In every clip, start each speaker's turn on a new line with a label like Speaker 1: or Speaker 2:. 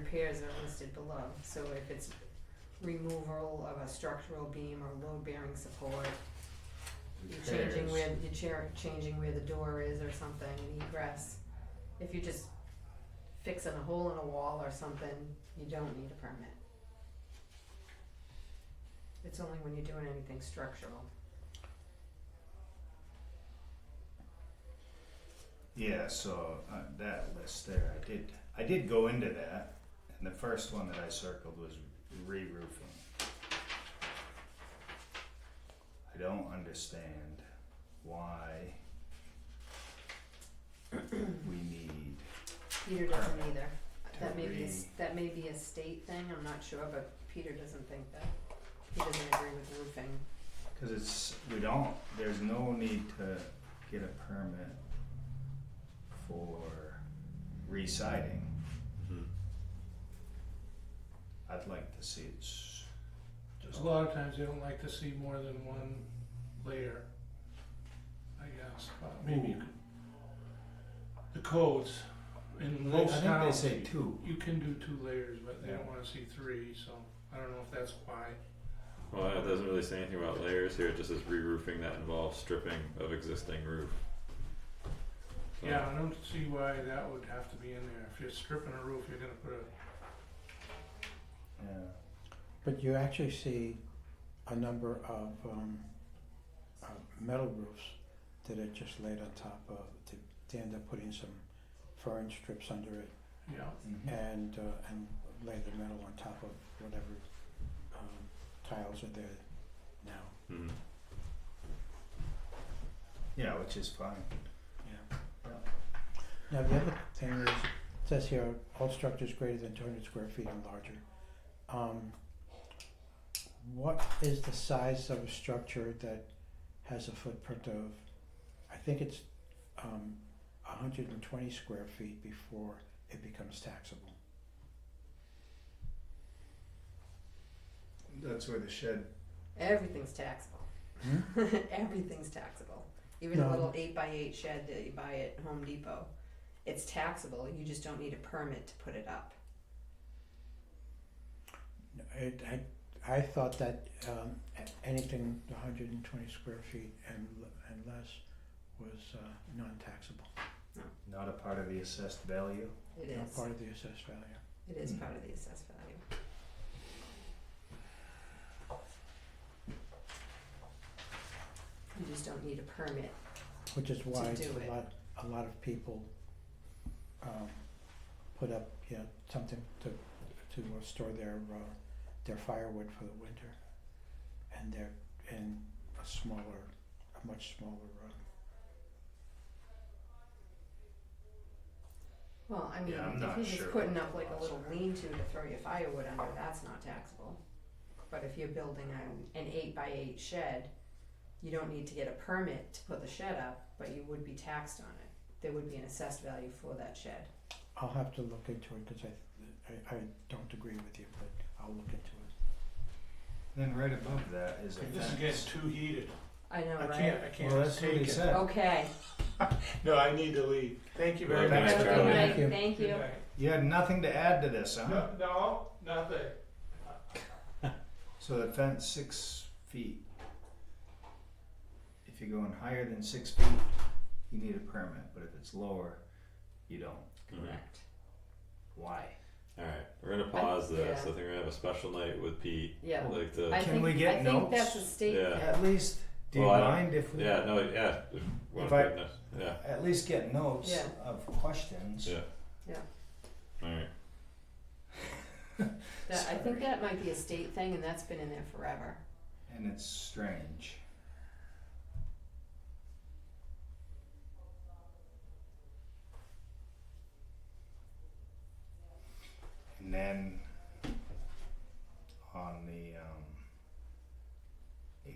Speaker 1: repairs are listed below, so if it's removal of a structural beam or load bearing support, you're changing
Speaker 2: Repairs.
Speaker 1: where, you're chair, changing where the door is or something, and egress. If you're just fixing a hole in a wall or something, you don't need a permit. It's only when you're doing anything structural.
Speaker 2: Yeah, so uh, that list there, I did, I did go into that, and the first one that I circled was re-roofing. I don't understand why we need,
Speaker 1: Peter doesn't either. That may be, a s-
Speaker 2: Three.
Speaker 1: that may be a state thing, I'm not sure, but Peter doesn't think that. He doesn't agree with roofing.
Speaker 2: cause it's, we don't, there's no need to get a permit for re-siding.
Speaker 3: Mhm.
Speaker 2: I'd like to see it's just.
Speaker 4: A lot of times they don't like to see more than one layer, I guess, but Uh, maybe you could. The codes in
Speaker 2: Well,
Speaker 4: most
Speaker 2: I think
Speaker 4: towns,
Speaker 2: they say two.
Speaker 4: you can do two layers, but they
Speaker 2: Yeah.
Speaker 4: don't wanna see three, so I don't know if that's why.
Speaker 3: Well, it doesn't really say anything about layers here, it just says re-roofing that involves stripping of existing roof. So,
Speaker 4: Yeah, I don't see why that would have to be in there. If you're stripping a roof, you're gonna put a,
Speaker 2: Yeah.
Speaker 5: But you actually see a number of um, uh, metal roofs that are just laid on top of, they, they end up putting some fern strips under it
Speaker 4: yeah,
Speaker 2: Mm-hmm.
Speaker 5: and, uh, and lay the metal on top of whatever um, tiles are there now.
Speaker 3: mhm.
Speaker 2: Yeah, which is fine.
Speaker 5: Yeah. Now, the other thing is, it says here, all structures greater than two hundred square feet and larger. Um, what is the size of a structure that has a footprint of, I think it's, um, hundred and twenty square feet before it becomes taxable?
Speaker 2: That's where the shed.
Speaker 1: Everything's taxable. Everything's taxable. Even a
Speaker 5: Hmm? No.
Speaker 1: little eight by eight shed that you buy at Home Depot, it's taxable. You just don't need a permit to put it up.
Speaker 5: No, It, I, I thought that, um, a- anything hundred and twenty square feet and, le- and less was, uh, non-taxable,
Speaker 2: Not a part of the assessed value.
Speaker 1: It
Speaker 5: not
Speaker 1: is.
Speaker 5: part of the assessed value.
Speaker 1: It is
Speaker 2: Hmm.
Speaker 1: part of the assessed value. You just don't need a permit.
Speaker 5: Which is why
Speaker 1: do it.
Speaker 5: a lot, a lot of people, um, put up, you know, something to, to uh, store their, uh, their firewood for the winter. And they're in a smaller, a much smaller room.
Speaker 1: Well, I mean,
Speaker 2: Yeah, I'm
Speaker 1: if
Speaker 2: not
Speaker 1: you're
Speaker 2: sure
Speaker 1: just putting
Speaker 2: what
Speaker 1: up like
Speaker 2: the
Speaker 1: a
Speaker 2: laws
Speaker 1: little
Speaker 2: are.
Speaker 1: lean-to to throw your firewood under, that's not taxable. But if you're building an, an eight by eight shed, you don't need to get a permit to put the shed up, but you would be taxed on it. There would be an assessed value for that shed.
Speaker 5: I'll have to look into it, cause I, I, I don't agree with you, but I'll look into it.
Speaker 2: Then right above that is a
Speaker 4: this is getting
Speaker 2: fence.
Speaker 4: too heated.
Speaker 1: I know,
Speaker 4: I
Speaker 1: right?
Speaker 4: can't, I
Speaker 2: well,
Speaker 4: can't
Speaker 2: that's what he
Speaker 4: take it.
Speaker 2: said.
Speaker 1: Okay.
Speaker 4: No, I need to leave. Thank you very
Speaker 3: Good night,
Speaker 4: much.
Speaker 1: Have a good
Speaker 3: Charlie.
Speaker 1: night.
Speaker 5: Thank you.
Speaker 1: Thank you.
Speaker 4: Good night.
Speaker 2: You had nothing to add to this, huh?
Speaker 4: No, no, nothing.
Speaker 2: So the fence six feet. If you're going higher than six feet, you need a permit. But if it's lower, you don't.
Speaker 1: Correct.
Speaker 2: Why?
Speaker 3: hmm. Alright, we're gonna pause
Speaker 1: I-
Speaker 3: this, I
Speaker 1: yeah.
Speaker 3: think we're gonna have a special night with Pete,
Speaker 1: Yeah.
Speaker 3: like the,
Speaker 1: I
Speaker 2: Can
Speaker 1: think,
Speaker 2: we get
Speaker 1: I think
Speaker 2: notes?
Speaker 1: that's a state
Speaker 3: Yeah.
Speaker 1: thing.
Speaker 2: At least, do you
Speaker 3: Well, I don't-
Speaker 2: mind if we
Speaker 3: yeah, no, yeah, if, wanna
Speaker 2: If I-
Speaker 3: put this- yeah,
Speaker 2: at least get notes
Speaker 1: Yeah.
Speaker 2: of questions?
Speaker 3: Yeah. alright,
Speaker 1: That, I
Speaker 2: Sorry.
Speaker 1: think that might be a state thing, and that's been in there forever.
Speaker 2: And it's strange. And then on the um,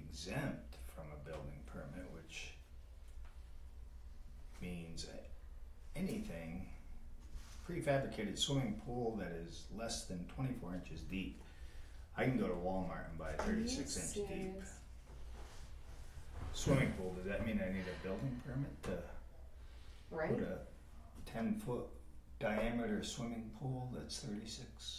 Speaker 2: exempt from a building permit, which means anything prefabricated swimming pool that is less than 24 inches deep. I can go to Walmart and buy a 36 inch deep swimming pool. Does that mean I need a building permit to
Speaker 1: Right?
Speaker 2: put a 10 foot diameter swimming pool that's thirty-six